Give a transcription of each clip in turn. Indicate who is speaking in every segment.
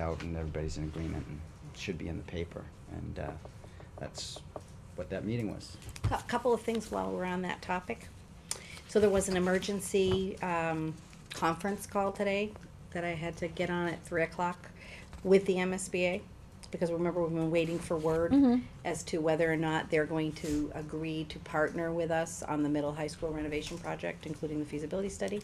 Speaker 1: out and everybody's in agreement and it should be in the paper. And uh, that's what that meeting was.
Speaker 2: A couple of things while we're on that topic. So there was an emergency um, conference call today that I had to get on at three o'clock with the MSBA. Because remember, we've been waiting for word as to whether or not they're going to agree to partner with us on the middle high school renovation project, including the feasibility study.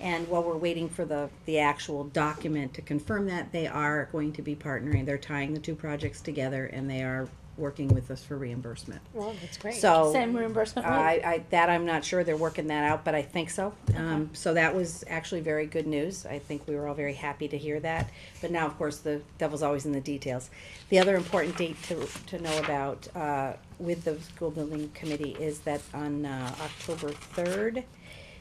Speaker 2: And while we're waiting for the, the actual document to confirm that, they are going to be partnering. They're tying the two projects together and they are working with us for reimbursement.
Speaker 3: Well, that's great.
Speaker 2: So.
Speaker 4: Same reimbursement rate?
Speaker 2: I, I, that I'm not sure, they're working that out, but I think so. Um, so that was actually very good news, I think we were all very happy to hear that, but now, of course, the devil's always in the details. The other important date to, to know about, uh, with the school building committee is that on, uh, October third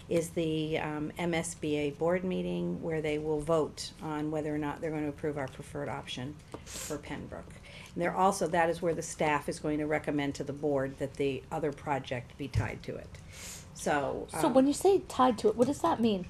Speaker 2: is the, um, MSBA board meeting where they will vote on whether or not they're gonna approve our preferred option for Pembroke. And There also, that is where the staff is going to recommend to the board that the other project be tied to it. So,
Speaker 4: So
Speaker 2: um,
Speaker 4: when you say tied to it, what does that mean?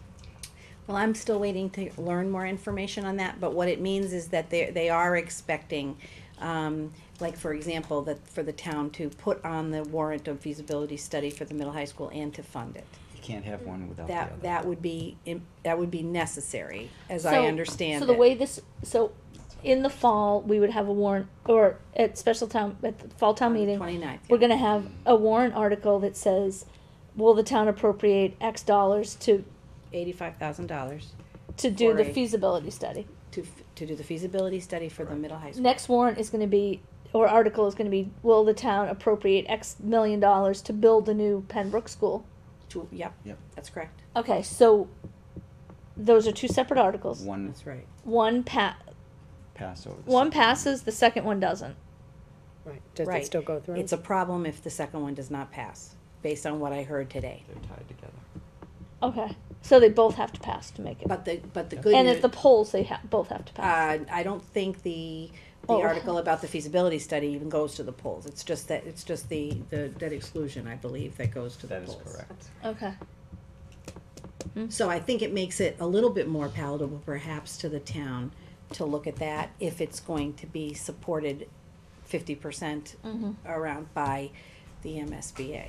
Speaker 2: well, I'm still waiting to learn more information on that, but what it means is that they, they are expecting, um, like, for example, that for the town to put on the warrant of feasibility study for the middle high school and to fund it.
Speaker 1: You can't have one without the other.
Speaker 2: That, that would be, im- that would be necessary, as I
Speaker 4: So-
Speaker 2: understand
Speaker 4: So
Speaker 2: it.
Speaker 4: the way this, so in the fall, we would have a warrant, or at special town, at the fall town meeting,
Speaker 2: Twenty-ninth.
Speaker 4: we're gonna have a warrant article that says, will the town appropriate X dollars to,
Speaker 2: Eighty-five thousand dollars
Speaker 4: to do the
Speaker 2: For a-
Speaker 4: feasibility study?
Speaker 2: to, f- to do the feasibility study for the middle high school.
Speaker 4: Next warrant is gonna be, or article is gonna be, will the town appropriate X million dollars to build a new Pembroke school?
Speaker 2: To, yep.
Speaker 1: Yep.
Speaker 2: That's correct.
Speaker 4: Okay, so those are two separate articles.
Speaker 1: One
Speaker 2: That's right.
Speaker 4: One pa-
Speaker 1: pass over. the
Speaker 4: one
Speaker 1: second.
Speaker 4: passes, the second one doesn't.
Speaker 3: Right, does
Speaker 2: Right.
Speaker 3: it still go through?
Speaker 2: It's a problem if the second one does not pass, based on what I heard today.
Speaker 1: They're tied together.
Speaker 4: Okay, so they both have to pass to make it.
Speaker 2: But the, but the good
Speaker 4: and at
Speaker 2: news,
Speaker 4: the polls, they ha- both have to pass.
Speaker 2: uh, I don't think the, the
Speaker 4: Oh.
Speaker 2: article about the feasibility study even goes to the polls. It's just that, it's just the, the debt exclusion, I believe, that goes to the
Speaker 1: That
Speaker 2: polls.
Speaker 1: is correct.
Speaker 4: okay.
Speaker 2: So I think it makes it a little bit more palatable perhaps to the town to look at that if it's going to be supported fifty percent
Speaker 3: Mm-hmm.
Speaker 2: around by the MSBA.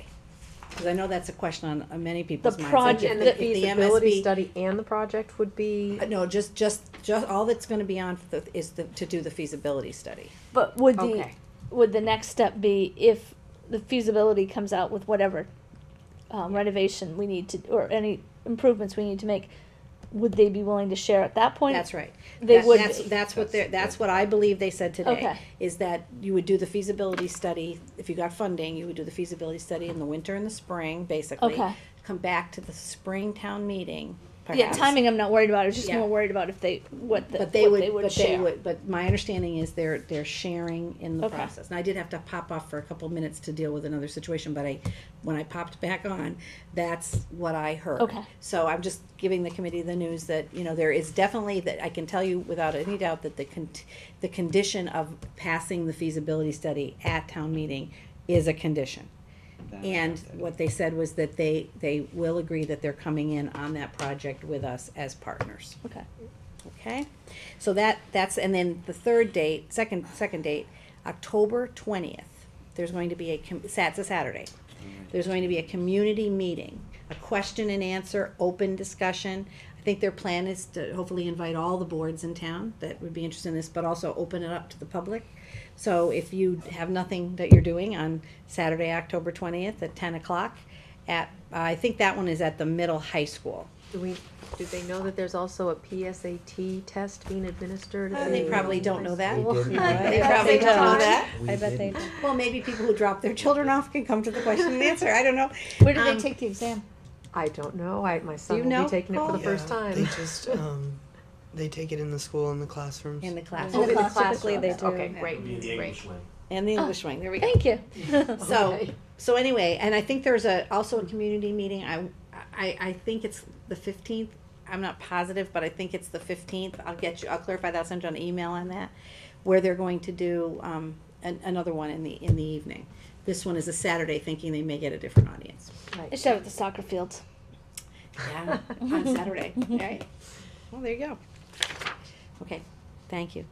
Speaker 2: Cause I know that's a question on uh, many people's minds. like
Speaker 4: project-
Speaker 2: if
Speaker 3: And
Speaker 4: the-
Speaker 3: the
Speaker 2: if MSB
Speaker 3: feasibility study and the project would be,
Speaker 2: Uh, No, just, just, just, all that's gonna be on the, is the, to do the feasibility study.
Speaker 4: But would the
Speaker 3: okay,
Speaker 4: would the next step be if the feasibility comes out with whatever um, renovation we need to or any improvements we need to make? Would they be willing to share at that point?
Speaker 2: That's right.
Speaker 4: They
Speaker 2: That-
Speaker 4: would
Speaker 2: That's,
Speaker 4: be.
Speaker 2: that's what they're, that's what I believe they said today,
Speaker 4: Okay.
Speaker 2: is that you would do the feasibility study, if you got funding, you would do the feasibility study in the winter and the spring, basically.
Speaker 4: Okay.
Speaker 2: Come back to the spring town meeting,
Speaker 4: Yeah,
Speaker 2: perhaps.
Speaker 4: timing. I'm not worried about. I was just
Speaker 2: Yeah.
Speaker 4: more worried about if they what the,
Speaker 2: But they
Speaker 4: what
Speaker 2: would,
Speaker 4: they would
Speaker 2: but
Speaker 4: share.
Speaker 2: they would, but my understanding is they're, they're sharing in the
Speaker 4: Okay.
Speaker 2: process. And I did have to pop off for a couple minutes to deal with another situation, but I, when I popped back on, that's what I heard.
Speaker 4: Okay.
Speaker 2: So I'm just giving the committee the news that, you know, there is definitely, that I can tell you without any doubt that the con, the condition of passing the feasibility study at town meeting is a condition.
Speaker 1: Then
Speaker 2: And
Speaker 1: that's it.
Speaker 2: what they said was that they, they will agree that they're coming in on that project with us as partners.
Speaker 4: Okay.
Speaker 2: Okay, so that, that's, and then the third date, second, second date, October twentieth, there's going to be a, com- Sa- it's a Saturday. There's going to be a community meeting, a question and answer, open discussion. I think their plan is to hopefully invite all the boards in town that would be interested in this, but also open it up to the public. So if you have nothing that you're doing on Saturday, October twentieth at ten o'clock, at, I think that one is at the middle high school.
Speaker 3: do we, do they know that there's also a PSAT test being administered? at
Speaker 2: Uh, They
Speaker 3: the
Speaker 2: probably don't know that. They
Speaker 3: Yeah,
Speaker 2: probably
Speaker 3: they
Speaker 2: don't know
Speaker 3: don't.
Speaker 2: that.
Speaker 1: We
Speaker 4: I bet they.
Speaker 1: didn't.
Speaker 2: Well, maybe people who drop their children off can come to the question and answer. I don't know.
Speaker 4: Where do
Speaker 2: Um,
Speaker 4: they take the exam?
Speaker 3: I don't know, I, my
Speaker 2: you
Speaker 3: son will
Speaker 2: know,
Speaker 3: be taking it for
Speaker 2: Paul?
Speaker 3: the first
Speaker 5: Yeah, They
Speaker 3: time.
Speaker 5: just um, they take it in the school in the classrooms.
Speaker 2: In the class.
Speaker 4: In the
Speaker 3: Oh,
Speaker 4: class,
Speaker 3: classroom.
Speaker 2: typically they do,
Speaker 3: Okay,
Speaker 2: yeah. Oh.
Speaker 3: great,
Speaker 6: Be the
Speaker 3: great.
Speaker 6: English way.
Speaker 2: And the English wing. There we go.
Speaker 4: Thank you.
Speaker 2: So,
Speaker 3: Okay.
Speaker 2: so anyway, and I think there's a, also a community meeting. I, I, I think it's the fifteenth. I'm not positive, but I think it's the fifteenth. I'll get you, I'll clarify that, I'll send you an email on that. Where they're going to do, um, an, another one in the, in the evening. This one is a Saturday, thinking they may get a different audience.
Speaker 3: Right.
Speaker 4: They should have it at the soccer fields.
Speaker 2: Yeah, on Saturday, right? Well, there you go. Okay, thank you.